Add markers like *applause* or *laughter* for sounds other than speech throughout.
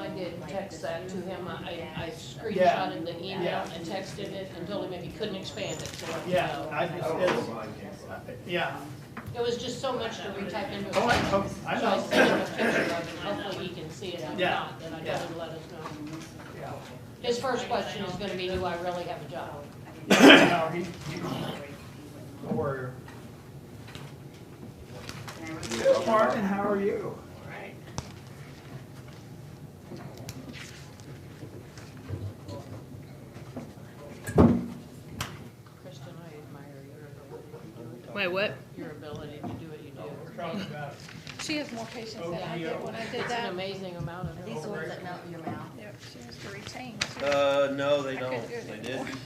I did text that to him, I, I I Yeah. screenshotted the email Yeah. and texted it and told him if he couldn't expand it, so. let me Yeah, know. I, I don't know where it's, mine came from. yeah. It was just so much to retype into a Oh, I, sentence. oh, So I I know. sent him a picture of it, hopefully he can see it, if Yeah. not, then I Yeah. told him to let us know. Yeah. His first question is gonna be, do I really have a job? No, he, he, don't worry. Good, Martin, how are you? Kristen, I admire your ability, My what? your ability to do what you do. talking about She has more patience than I did when I did It's an that. amazing amount of. These are the ones that melt in your mouth. Yep, she has to retain. too. Uh, no, I they couldn't don't, do it they anymore. didn't,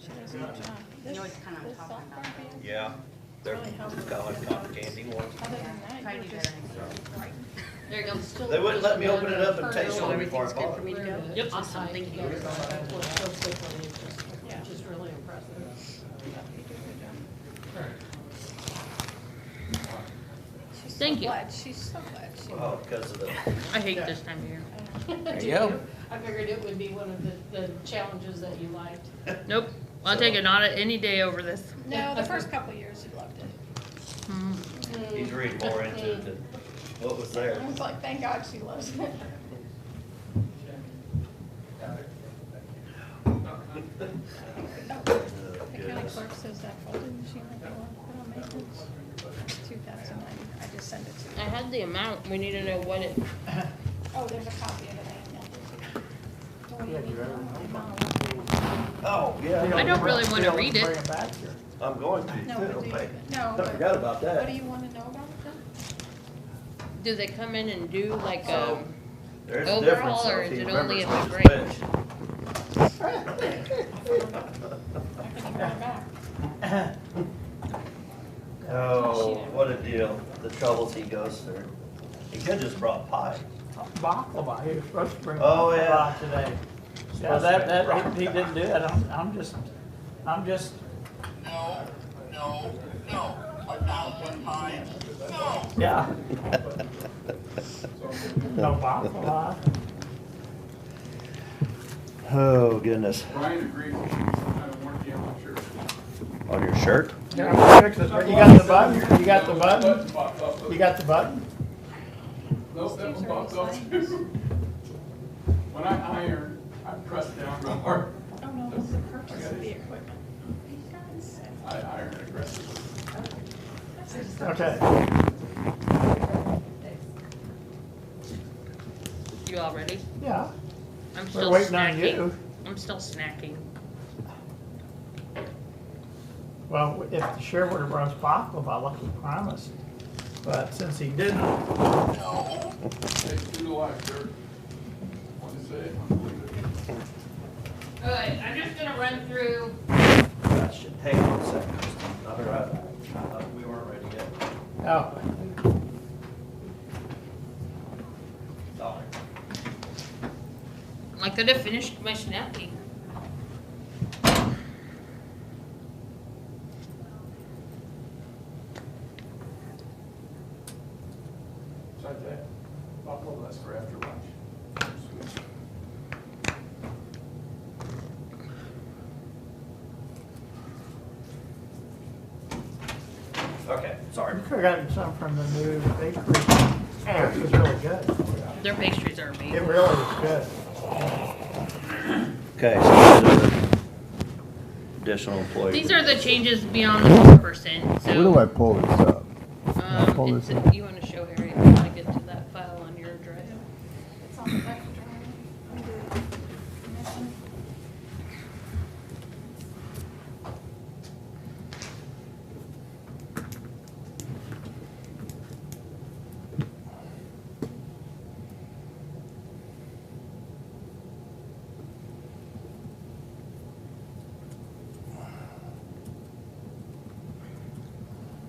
She does a good job. You know This- what kind I'm this talking software about? thing, yeah. They're Really helpful. cotton cotton candy ones. Other Yeah, than that, try you to were do just. better. There you go. Still They wouldn't let me just open it another up and kernel. taste it before I Everything's good bought for it. me to go? Yep. Awesome, thank you. That's what it's so quickly, it's just- it's just really impressive. she's so Thank you. Glad, she's so glad. She, Oh, because of the, I hate this time of year. *laughs* There you go. I figured it would be one of the, the challenges that you liked. Nope, I'll take an audit any day over this. no, the first couple of years, she loved it. he's reading more into it than what was there. I was like, thank God she loves it. The Oh, county goodness. clerk says that folder machine that they want to put on maintenance, two thousand nine, I just sent it to I you. had the amount, we need to know what it, Oh, there's a copy of it, I emailed it. to you. Oh, yeah, I don't really wanna They'll read it. bring back here. I'm going No, but do to, you, okay. no, I but forgot about what do that. you wanna know about it then? do they come in and do like, So, um, There's a overall, difference. though, or if is he it only remembers at the which branch? branch. I can email it back. *laughs* Oh, what a deal, the troubles he goes through. He could've just brought pie. Baklava, he was supposed to bring Oh, yeah. baklava today. Yeah, that, that, he he didn't do that, I'm, I'm just, I'm just, No, no, no, a thousand times, no. yeah. No baklava. Oh, goodness. Brian agreed with you, I don't want the amateur. On your shirt? Here, I'm gonna fix it. You got the button, you got the button, you got the button? Nope, that one popped up too. *laughs* When I iron, I press down real hard, Oh, no, that's the purchase of the equipment. I iron aggressively. Okay. you all ready? Yeah, I'm we're still waiting on snacking. you. I'm still snacking. Well, if the sheriff would have brought us baklava, like he promised, but since he didn't, It's through the life, sir. Want to say it, unbelievable. Good, I'm just gonna run through. Gotcha. Hang on a second. All right. Uh, We weren't ready yet. oh, Sorry. I could have finished my snacking. Try that, buckle less for after lunch. Sweet. Okay, we sorry. could have gotten some from the new bakery. It was really good. Their pastries are It amazing. really was good. Okay, so these are the additional employee. These are the changes beyond the four percent, so. Where do I pull this up? Um, pull it's, this up? you wanna